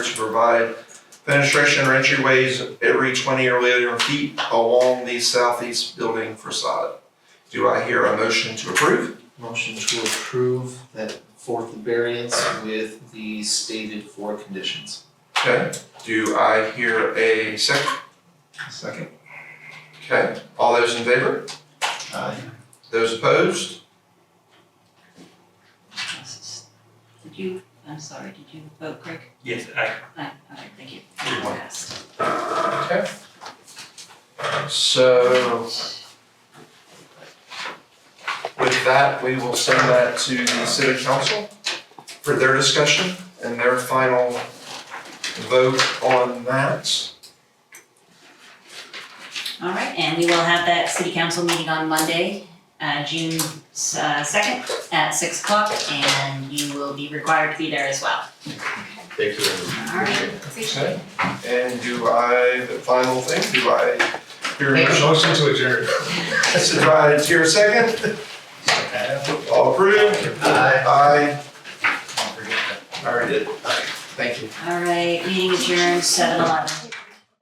to provide penetration or entryways every twenty or later feet along the southeast building facade. Do I hear a motion to approve? Motion to approve that fourth variance with the stated four conditions. Okay, do I hear a second? Second. Okay, all those in favor? Aye. Those opposed? Did you, I'm sorry, did you vote, Craig? Yes, I, Aye, all right, thank you. Good one. Passed. Okay. So with that, we will send that to the city council for their discussion and their final vote on that. All right, and we will have that city council meeting on Monday, uh, June uh, second at six o'clock, and you will be required to be there as well. Thank you. All right. Okay. And do I, the final thing, do I hear a motion? Motion to adjourn. Yes, do I hear a second? All approved? Aye. Don't forget that. I already did. Thank you. All right, meeting adjourned, seven eleven.